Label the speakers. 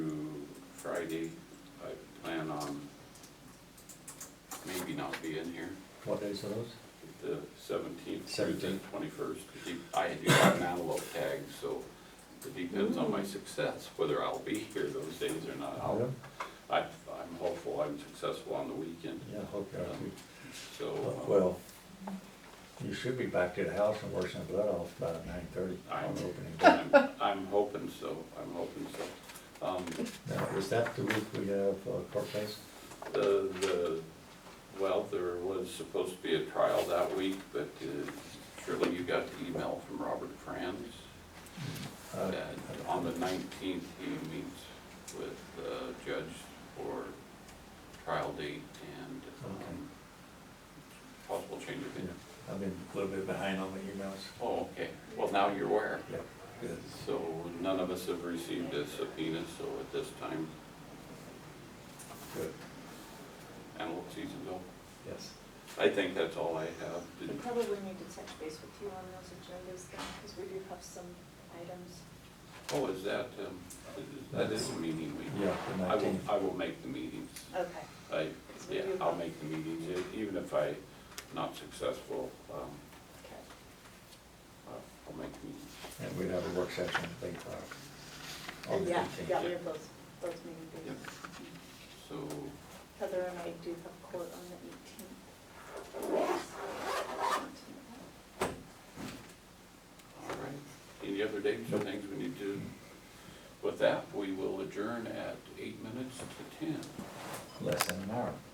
Speaker 1: Friday, I plan on maybe not being here,
Speaker 2: What days are those?
Speaker 1: the seventeenth through the
Speaker 2: 17th.
Speaker 1: twenty-first. I do have an antelope tag, so it depends on my success, whether I'll be here those days or not. I'll- I, I'm hopeful I'm successful on the weekend,
Speaker 2: Yeah, I hope you're, not.
Speaker 1: so
Speaker 2: well, you should be back to the house and washing the blood off by nine thirty
Speaker 1: I-
Speaker 2: on opening
Speaker 1: uh,
Speaker 2: day.
Speaker 1: I'm, I'm hoping so, I'm hoping so. Um,
Speaker 2: Now, is that the week we have uh, court case?
Speaker 1: The, the, well, there was supposed to be a trial that week, but uh, surely you got the email from Robert Franz.
Speaker 2: I-
Speaker 1: that On the nineteenth, he meets with the judge for trial date and um, possible change of venue.
Speaker 2: I've been a little bit behind on the emails.
Speaker 1: Oh, okay, well, now you're aware.
Speaker 2: Yeah, good.
Speaker 1: So none of us have received a subpoena, so at this time,
Speaker 2: Good,
Speaker 1: antelope season's over.
Speaker 2: yes.
Speaker 1: I think that's all I have.
Speaker 3: We
Speaker 1: Did-
Speaker 3: probably need to touch base with you on those agendas then, because we do have some items.
Speaker 1: Oh, is that, um, that is a meeting week?
Speaker 2: Yeah, the
Speaker 1: I will,
Speaker 2: nineteenth.
Speaker 1: I will make the meetings.
Speaker 3: Okay.
Speaker 1: I,
Speaker 3: Because we
Speaker 1: yeah,
Speaker 3: do
Speaker 1: I'll
Speaker 3: have-
Speaker 1: make the meetings, E- even if I'm not successful, um,
Speaker 3: Okay.
Speaker 1: I'll- I'll make the meetings.
Speaker 2: And we'd have a work session at eight o'clock. on the
Speaker 3: Yeah,
Speaker 2: 18th.
Speaker 3: Oh, yeah, we have those, those meeting
Speaker 1: Yep.
Speaker 3: dates.
Speaker 1: So,
Speaker 3: Heather and I do have court on the eighteenth.
Speaker 1: all right. Any other dates or
Speaker 2: Nope.
Speaker 1: things we need to? With that, we will adjourn at eight minutes to ten.
Speaker 2: Less than an hour.